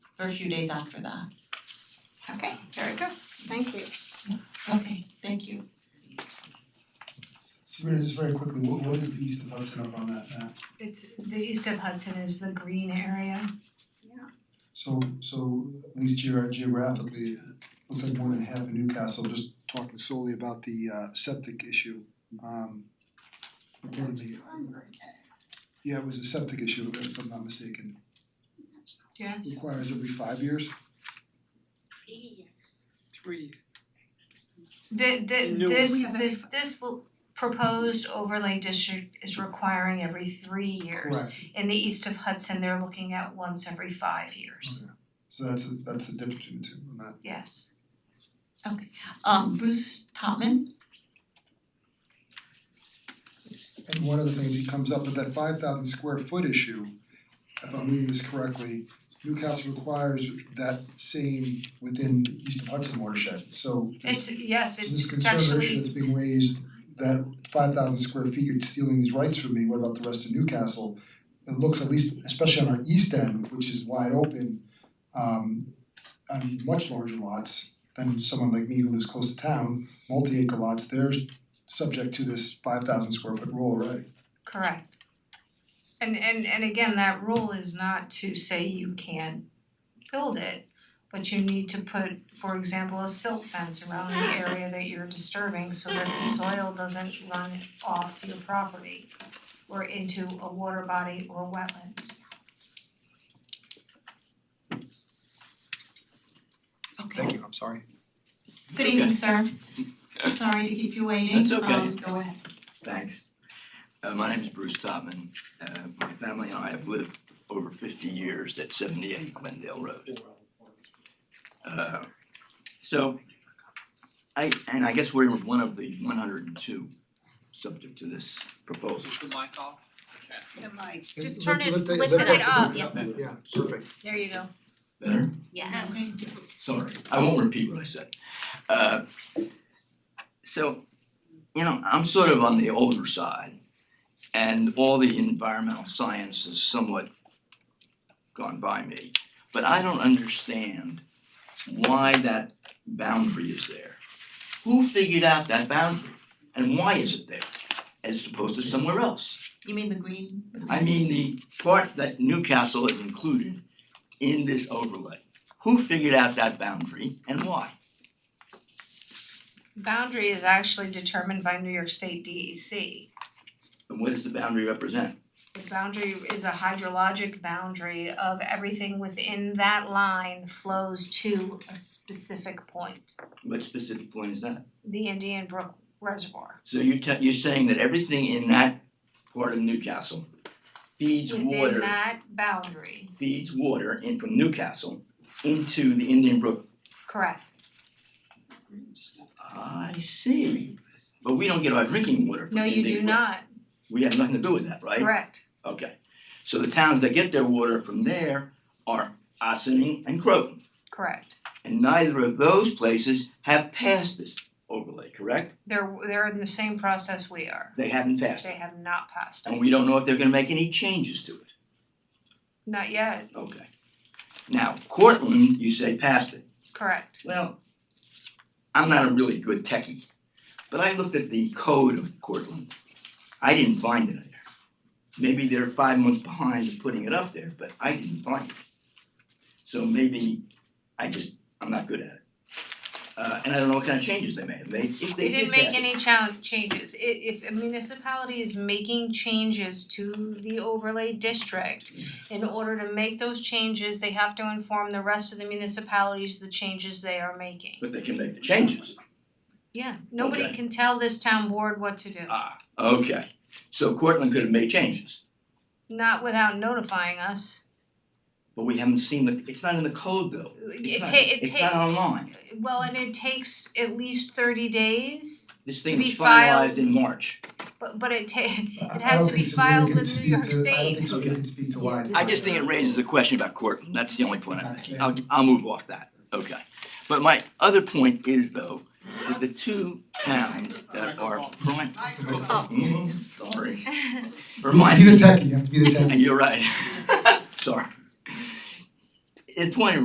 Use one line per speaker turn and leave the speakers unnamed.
or a few days after that.
Okay, very good, thank you.
Okay, thank you.
Sabrina, just very quickly, what what is the east of Hudson up on that map?
It's the east of Hudson is the green area.
So so at least geor- geographically, it looks like more than half of Newcastle, just talking solely about the uh septic issue. Um reportedly, yeah, it was a septic issue, if I'm not mistaken,
Yes.
requires every five years.
Three.
The the
No.
this this this l- proposed overlay district is requiring every three years.
Correct,
In the east of Hudson, they're looking at once every five years,
so that's that's the difference between the two on that.
yes.
Um Bruce Topman,
And one of the things that comes up with that five thousand square foot issue, if I'm reading this correctly, Newcastle requires that same within the east of Hudson watershed, so this
It's, yes,
so
it's
this
it's
conservative issue
actually,
that's being raised, that five thousand square feet, you're stealing these rights from me, what about the rest of Newcastle? It looks at least, especially on our east end, which is wide open, um on much larger lots than someone like me who lives close to town, multi-acre lots, they're subject to this five thousand square foot rule already.
correct. And and and again, that rule is not to say you can't build it, but you need to put, for example, a silt fence around the area that you're disturbing so that the soil doesn't run off your property or into a water body or wetland.
okay.
Thank you, I'm sorry.
Good evening, sir. Sorry to keep you waiting.
That's okay.
Um go ahead.
Thanks. Uh, my name is Bruce Topman. Uh, my family and I have lived over fifty years at seventy-eight Glendale Road. Uh, so, I, and I guess we're with one of the one hundred and two subject to this proposal.
Is the mic off?
The mic,
Lift-
Just turn it,
lift it-
lift
lift
it
it
up, yeah,
Okay.
Yeah, perfect.
there you go,
Better?
yes.
Okay.
Sorry, I won't repeat what I said. Uh, so, you know, I'm sort of on the older side, and all the environmental science has somewhat gone by me. But I don't understand why that boundary is there. Who figured out that boundary, and why is it there, as opposed to somewhere else?
You mean the green, the green-
I mean the part that Newcastle is included in this overlay. Who figured out that boundary and why?
Boundary is actually determined by New York State E DEC.
And what does the boundary represent?
The boundary is a hydrologic boundary of everything within that line flows to a specific point,
What specific point is that?
the Indian Brook Reservoir.
So you're te- you're saying that everything in that part of Newcastle feeds
Within
water,
that boundary,
feeds water in from Newcastle into the Indian Brook.
correct.
I see. But we don't get our drinking water from
No,
the
you
Indian
do
Brook.
not,
We have nothing to do with that, right?
correct,
Okay. So the towns that get their water from there are Ossining and Croton.
correct.
And neither of those places have passed this overlay, correct?
They're they're in the same process we are.
They haven't passed
They
it.
have not passed
And
it,
we don't know if they're gonna make any changes to it.
not yet,
Okay. Now, Cortland, you say passed it.
correct.
Well, I'm not a really good techie, but I looked at the code of Cortland. I didn't find it there. Maybe they're five months behind in putting it up there, but I didn't find it. So maybe I just, I'm not good at it. Uh, and I don't know what kind of changes they may have made, if they
They
did
didn't
pass
make
it.
any challenge changes. I- if a municipality is making changes to the overlay district, in order to make those changes, they have to inform the rest of the municipalities the changes they are making.
But they can make the changes.
Yeah, nobody
Okay.
can tell this town board what to do,
Ah, okay. So Cortland could have made changes,
not without notifying us.
but we haven't seen the, it's not in the code though. It's
It
not-
ta- it
It's not
ta-
online.
well, and it takes at least thirty days,
This thing
To be
was finalized in
filed.
March.
but but it ta-
I-
It
I
has
don't
to
think
be
Sabrina
filed
can
with New
speak
York
to- I don't
State.
think Sabrina can speak to why it's.
I just think it raises a question about Cortland. That's the only point I'm making. I'll, I'll move off that. Okay. But my other point is though, that the two towns that are prime. Mhm, Sorry. Remind
Be the techie, you have to be the techie.
You're right. Sorry. The point